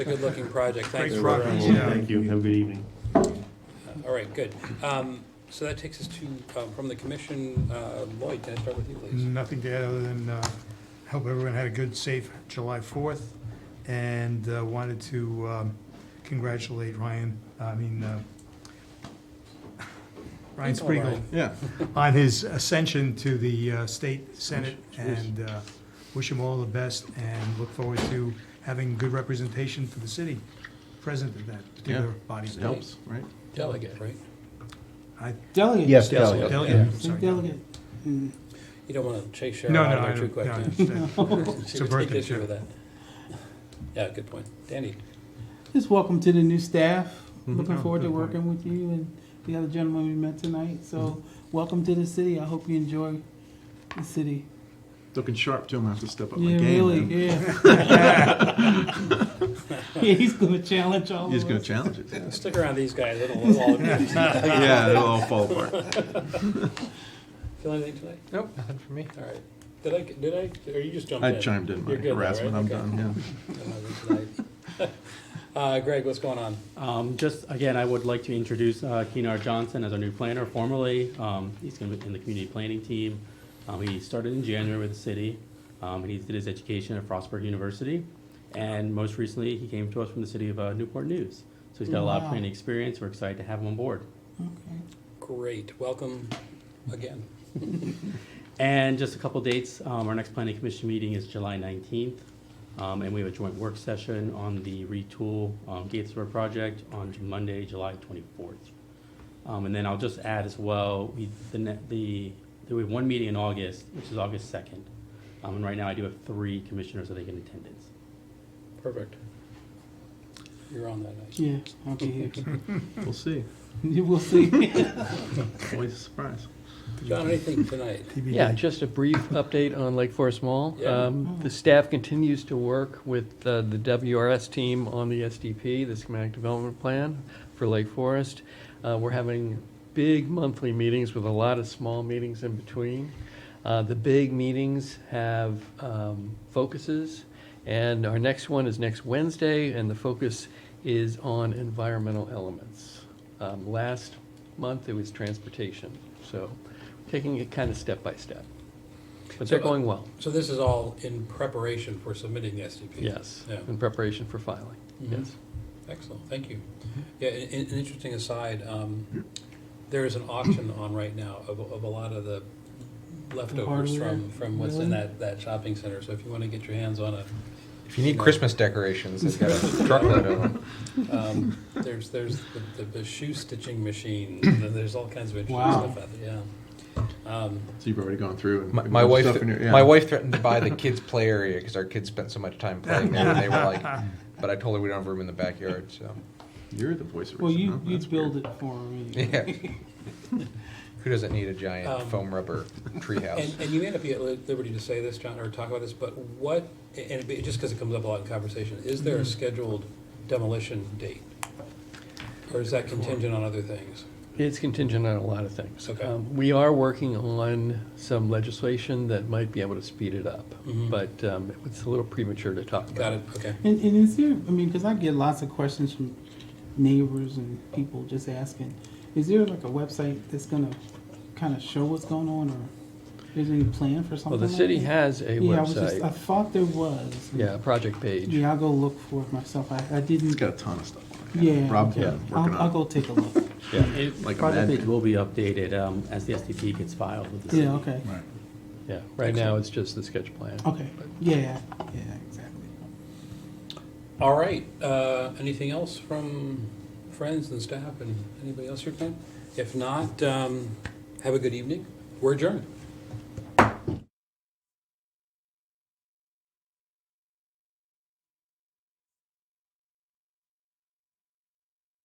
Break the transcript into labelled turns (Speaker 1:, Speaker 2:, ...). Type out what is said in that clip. Speaker 1: a good-looking project, thanks
Speaker 2: Great
Speaker 1: for,
Speaker 2: progress.
Speaker 1: uh,
Speaker 2: Yeah.
Speaker 3: Thank you, have a good evening.
Speaker 1: all right, good. Um, So that takes us to, um, from the commission, uh, Lloyd, can I start with you, please?
Speaker 2: Nothing to add other than uh, hope everyone had a good, safe July 4th, and uh, wanted to um, congratulate Ryan, I mean, uh, Ryan
Speaker 1: It's all right.
Speaker 2: Spiegel,
Speaker 4: Yeah.
Speaker 2: on his ascension to the uh, state senate, and uh, wish him all the best, and look forward to having good representation for the city present at that particular body.
Speaker 4: It helps, right?
Speaker 1: Delegate, right?
Speaker 2: I-
Speaker 5: Delegate.
Speaker 6: Yes,
Speaker 2: Delegate,
Speaker 6: delegate.
Speaker 2: delegate, I'm sorry.
Speaker 5: Delegate.
Speaker 1: You don't want to chase Sharon
Speaker 2: No, no,
Speaker 1: out
Speaker 2: I
Speaker 1: there too
Speaker 2: don't,
Speaker 1: quick.
Speaker 2: no, I
Speaker 1: yeah.
Speaker 2: understand.
Speaker 1: She
Speaker 2: It's a
Speaker 1: would take
Speaker 2: burden,
Speaker 1: issue
Speaker 2: yeah.
Speaker 1: with that. Yeah, good point. Danny,
Speaker 5: Just welcome to the new staff. Looking
Speaker 2: Oh,
Speaker 5: forward to
Speaker 2: good point.
Speaker 5: working with you and the other gentleman we met tonight. So, welcome to the city. I hope you enjoy the city.
Speaker 4: Looking sharp too, I'm gonna have to step up my
Speaker 5: Yeah,
Speaker 4: game.
Speaker 5: really,
Speaker 4: man.
Speaker 5: yeah. Yeah, he's gonna challenge all of
Speaker 4: He's gonna
Speaker 5: us.
Speaker 4: challenge it, yeah.
Speaker 1: stick around these guys, it'll, it'll all,
Speaker 4: Yeah, it'll all fall apart.
Speaker 1: feel anything tonight?
Speaker 7: Nope, nothing for me.
Speaker 1: All right. Did I, did I, or you just jumped
Speaker 4: I
Speaker 1: in?
Speaker 4: chimed in my
Speaker 1: You're good though, right?
Speaker 4: harassment, I'm
Speaker 1: Okay.
Speaker 4: done, yeah.
Speaker 1: Don't know this tonight. Uh, Greg, what's going on?
Speaker 8: Um, just again, I would like to introduce uh, Keenar Johnson as our new planner formerly. Um, he's going to be in the community planning team. Um, he started in January with the city, um, and he did his education at Frostburg University. And most recently, he came to us from the city of uh, Newport News. So he's got a lot of
Speaker 5: Wow.
Speaker 8: planning experience. We're excited to have him on board.
Speaker 5: Okay.
Speaker 1: Great, welcome again.
Speaker 8: And just a couple dates, um, our next planning commission meeting is July nineteenth. Um, and we have a joint work session on the retool, um, Gates River project on Monday, July twenty-fourth. Um, and then I'll just add as well, we, the, ne- the, there was one meeting in August, which is August second. Um, and right now I do have three commissioners that I think in attendance.
Speaker 1: Perfect. You're on that night.
Speaker 5: Yeah, I'll be here.
Speaker 4: We'll see.
Speaker 5: You will see.
Speaker 4: Always a surprise.
Speaker 1: John, anything tonight?
Speaker 2: TBD.
Speaker 7: Yeah, just a brief update on Lake Forest Mall.
Speaker 1: Yeah.
Speaker 7: Um, The staff continues to work with uh, the WRS team on the SDP, the schematic development plan for Lake Forest. Uh, We're having big monthly meetings with a lot of small meetings in between. Uh, The big meetings have um, focuses, and our next one is next Wednesday, and the focus is on environmental elements. Um, Last month, it was transportation, so taking it kind of step by step. But they're
Speaker 1: So, uh,
Speaker 7: going well,
Speaker 1: So this is all in preparation for submitting the SDP?
Speaker 7: yes,
Speaker 1: Yeah.
Speaker 7: in preparation for filing,
Speaker 1: Mhm.
Speaker 7: yes.
Speaker 1: Excellent, thank you. Yeah, an, an an interesting aside, um, there is an auction on right now of, of a lot of the leftovers
Speaker 5: hardware?
Speaker 1: from, from what's in
Speaker 5: Really?
Speaker 1: that, that shopping center. So if you want to get your hands on a,
Speaker 7: If
Speaker 9: If you need Christmas decorations, they've got a truckload of them.
Speaker 1: um, there's, there's the- the, the shoe stitching machine, and there's all kinds of interesting
Speaker 5: Wow.
Speaker 1: stuff out there, yeah. Um,
Speaker 4: So you've already gone through and.
Speaker 9: My,
Speaker 4: and
Speaker 9: my
Speaker 4: done
Speaker 9: wife,
Speaker 4: stuff in your- yeah.
Speaker 9: my wife threatened to buy the kids' play area because our kids spent so much time playing there. They were like, but I told her we don't have room in the backyard, so.
Speaker 4: You're the voice of reason.
Speaker 5: Well, you,
Speaker 4: huh?
Speaker 5: you
Speaker 4: That's
Speaker 5: build
Speaker 4: weird.
Speaker 5: it for me.
Speaker 9: Yeah. Who doesn't need a giant
Speaker 1: Um,
Speaker 9: foam rubber treehouse?
Speaker 1: And, and you may not be at li- liberty to say this, John, or talk about this, but what, and it'd be- just because it comes up a lot in conversation, is there a scheduled demolition date? Or is that contingent on other things?
Speaker 7: It's contingent on a lot of things.
Speaker 1: Okay.
Speaker 7: Um, We are working on some legislation that might be able to speed it up,
Speaker 1: Mhm.
Speaker 7: but um, it's a little premature to talk about.
Speaker 1: Got it, okay.
Speaker 5: And, and is there, I mean, because I get lots of questions from neighbors and people just asking, is there like a website that's gonna kind of show what's going on or is there any plan for something
Speaker 7: Well,
Speaker 5: like
Speaker 7: the
Speaker 5: that?
Speaker 7: city has a
Speaker 5: Yeah, I was just, I
Speaker 7: website,
Speaker 5: thought there was.
Speaker 7: yeah, a project page.
Speaker 5: Yeah, I'll go look for it myself. I, I
Speaker 4: He's
Speaker 5: didn't.
Speaker 4: got a ton of stuff. on it.
Speaker 5: Yeah.
Speaker 4: Rob's
Speaker 5: okay.
Speaker 4: been working
Speaker 5: I'll, I'll
Speaker 4: on it.
Speaker 5: go take a look.
Speaker 8: It-
Speaker 4: Like a
Speaker 8: Project
Speaker 4: madman.
Speaker 8: page will be updated, um, as the SDP gets filed with the city.
Speaker 5: Yeah, okay,
Speaker 4: Right.
Speaker 7: Yeah, right now, it's just the sketch plan.
Speaker 5: okay. Yeah, yeah, exactly.
Speaker 1: All right, uh, anything else from friends and staff and anybody else here tonight? If not, um, have a good evening. We're adjourned.